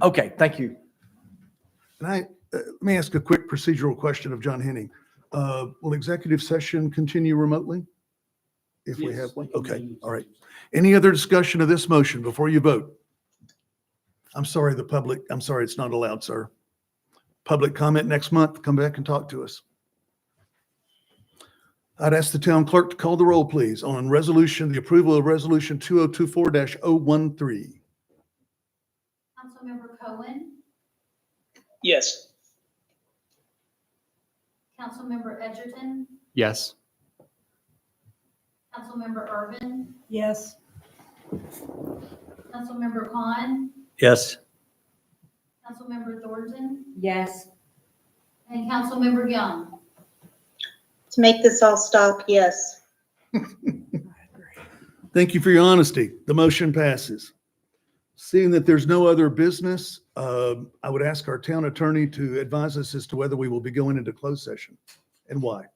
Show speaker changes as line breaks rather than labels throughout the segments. Okay, thank you.
And I, uh, let me ask a quick procedural question of John Henning. Uh, Will executive session continue remotely? If we have one? Okay, all right. Any other discussion of this motion before you vote? I'm sorry, the public, I'm sorry, it's not allowed, sir. Public comment next month, come back and talk to us. I'd ask the town clerk to call the roll, please, on resolution, the approval of Resolution 2024-013.
Councilmember Cohen,
Yes.
Councilmember Edgerton,
Yes.
Councilmember Irvin,
Yes.
Councilmember Khan,
Yes.
Councilmember Thornton,
Yes.
and Councilmember Young.
To make this all stop, yes.
Thank you for your honesty. The motion passes. Seeing that there's no other business, um, I would ask our town attorney to advise us as to whether we will be going into closed session and why.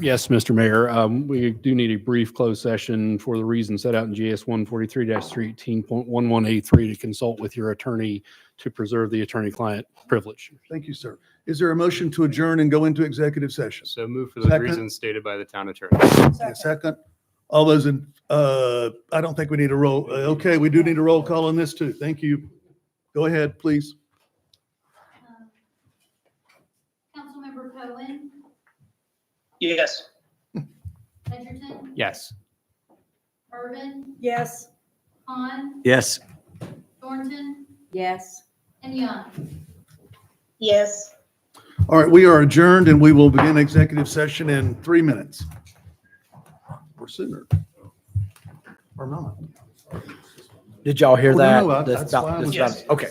Yes, Mr. Mayor, um, we do need a brief closed session for the reasons set out in GS one forty-three 31811 A three to consult with your attorney to preserve the attorney-client privilege.
Thank you, sir. Is there a motion to adjourn and go into executive session?
So move for
those
those
Second.
reasons
reasons
stated by the town attorney.
A second? All those in, uh, I don't think we need a roll. uh, Okay, we do need a roll call on this too. Thank you. Go ahead, please.
Uh, Councilmember Cohen,
Yes.
Edgerton,
Yes.
Irvin,
Yes.
Khan,
Yes.
Thornton,
Yes.
and Young.
Yes.
All right, we are adjourned and we will begin executive session in three minutes. Or sooner. Or not.
Did y'all hear
Well, no,
that?
no, I-
That's
that's
about-
why I
that's
was-
about- Okay.